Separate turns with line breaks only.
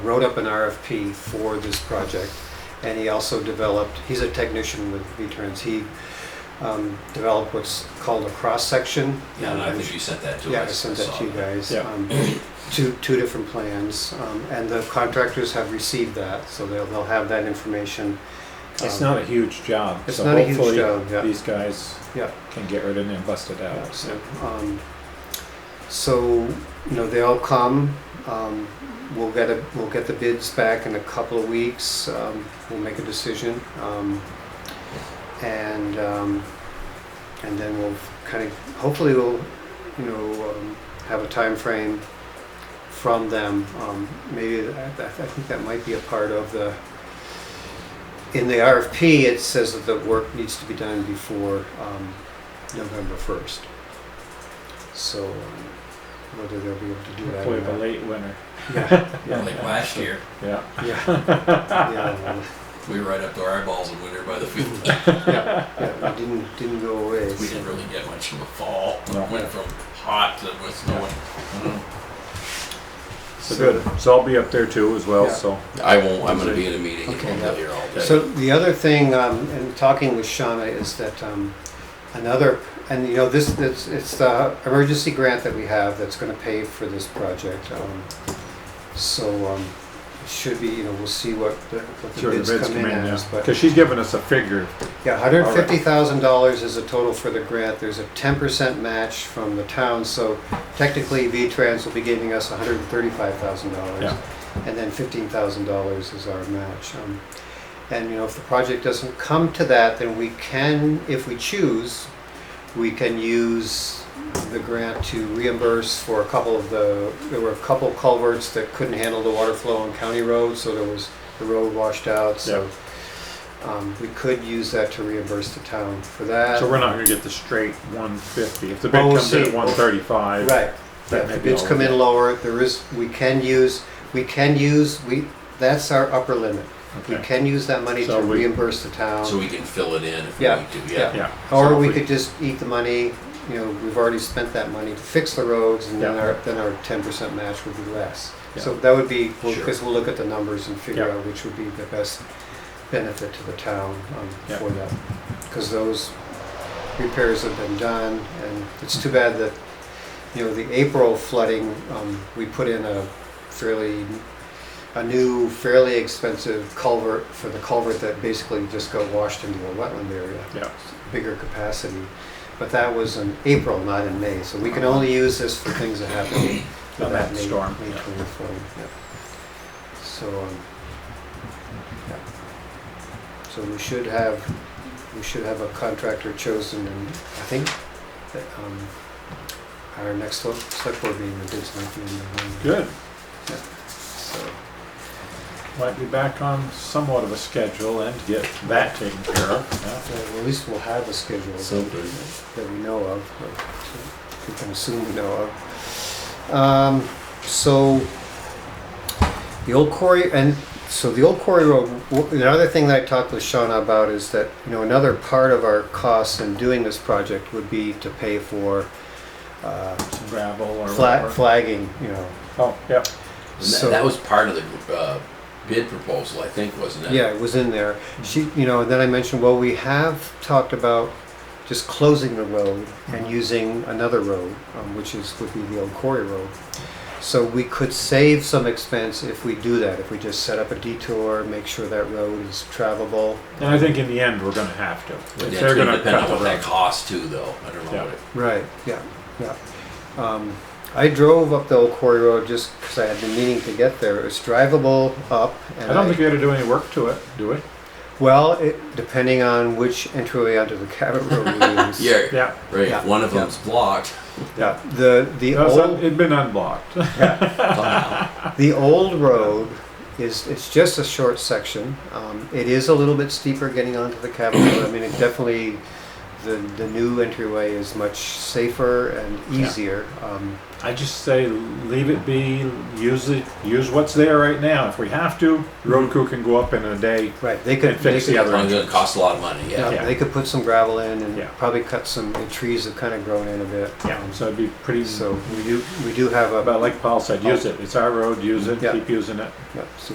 wrote up an RFP for this project, and he also developed, he's a technician with V-Trans, he um, developed what's called a cross-section.
Yeah, and I
Um,
think you sent that to us.
Yeah, I sent that to you guys.
Yeah.
um, Two, two different plans, um, and the contractors have received that, so they'll, they'll have that information.
It's
um,
not a huge job,
It's
so
not a huge
hopefully
job, yeah.
these guys
Yeah.
can get rid of it and bust it
Yeah,
out.
so, um, so, you know, they'll come, um, we'll get a, we'll get the bids back in a couple of weeks, um, we'll make a decision. Um, and, um, and then we'll kind of, hopefully we'll, you know, um, have a time frame from them. Um, maybe, I, I think that might be a part of the, in the RFP, it says that the work needs to be done before, um, November first. So um, whether they'll be able to do that
Hopefully
or
a
not.
late winter.
Yeah,
Like last year,
Yeah.
yeah, yeah, well,
we were right up to our eyeballs in winter by the field.
yeah, yeah, it didn't, didn't go away.
We
so.
didn't really get much of a fall.
No.
Went from hot to with snowing.
So good. So I'll be up there too as well.
Yeah.
So
I won't, I'm gonna be in a meeting, I'm
Okay,
not here all day.
So the other thing, um, in talking with Shauna, is that, um, another, and you know, this, it's, it's the emergency grant that we have that's gonna pay for this project. um, So, um, it should be, you know, we'll see what the, what the
sure
bids
the bids
come in as, but.
because she's giving us a figure.
Yeah, hundred and fifty thousand dollars is the total for the grant, there's a ten percent match from the town, so technically V-Trans will be giving us hundred and thirty-five thousand dollars.
Yeah.
And then fifteen thousand dollars is our match. Um, And, you know, if the project doesn't come to that, then we can, if we choose, we can use the grant to reimburse for a couple of the, there were a couple culverts that couldn't handle the water flow on county roads, so there was, the road washed out, so. Um, we could use that to reimburse the town for that.
So we're not going to get the straight 150. If the bid
Well, we'll
comes in
see.
at 135,
Right,
That
yeah,
may
the
be
bids
all
come in
good.
lower, there is, we can use, we can use, we, that's our upper limit. We
Okay.
can use that money to
So we-
reimburse the
So
town,
we can fill it in if we
Yeah,
need to,
yeah.
yeah.
Yeah.
or
So
we
if
could just eat the money, you know, we've already spent that money to fix the roads, and then
Yeah.
our, then our ten percent match would be less.
Yeah.
So that would be,
Sure.
because we'll look at the numbers and figure
Yeah.
out which would be the best benefit to the town um,
Yeah.
for that. Because those repairs have been done, and it's too bad that, you know, the April flooding, um, we put in a fairly, a new fairly expensive culvert for the culvert that basically just got washed into a wetland area
Yeah.
bigger capacity. But that was in April, not in May, so we can only use this for things that happen
Not
about
that
May, May
storm, yeah.
twenty-four. So, um, yeah. So we should have, we should have a contractor chosen and I think that, um, our next sel- select board meeting, the bids might be in the,
Good.
so.
Might be back on somewhat of a schedule and get that taken care of. Yeah.
so At least we'll have a schedule.
Something.
that we know of, or we can assume we know of. Um, so, the old quarry, and so the old quarry road, w- another thing that I talked with Shauna about is that, you know, another part of our costs in doing this project would be to pay for, uh,
Some gravel or
flag,
whatever.
flagging, you know.
Oh, yeah.
And
So-
that, that was part of the, uh, bid proposal, I think, wasn't it?
Yeah, it was in there. She, you know, and then I mentioned, well, we have talked about just closing the road and using another road, um, which is, would be the old quarry road. So we could save some expense if we do that, if we just set up a detour, make sure that road is travelable.
And I think in the end, we're going to have to.
But
If
that's
they're
gonna
going to
depend
cut
on
the
what that
road.
costs too, though, I don't
Yeah.
know what it.
Right, yeah, yeah. Um, I drove up the old quarry road just because I had been meaning to get there. It's drivable up. and
I don't think we got to do any work to it, do we?
Well, it, depending on which entryway onto the Cabot Road we use.
Yeah,
Yeah.
right,
Yeah.
if one of
Yeah.
them's blocked,
Yeah.
The, the
No, it's
old.
un- it'd been unblocked.
The old road is, it's just a short section. Um, it is a little bit steeper getting onto the Capitol. I mean, it definitely, the, the new entryway is much safer and easier. Um,
I just say leave it be, use it, use what's there right now. If we have to, road crew can go up in a day.
Right, they could,
And
they
fix the
could,
other
It's
end.
only going to cost a lot of money, yeah.
yeah,
Yeah.
they could put some gravel in
Yeah.
and probably cut some, the trees have kind of grown in a bit. Um,
Yeah, so it'd be pretty,
So we do, we do have a,
but like Paul said, use it. It's our road, use it,
Yeah.
keep using it.
yeah, so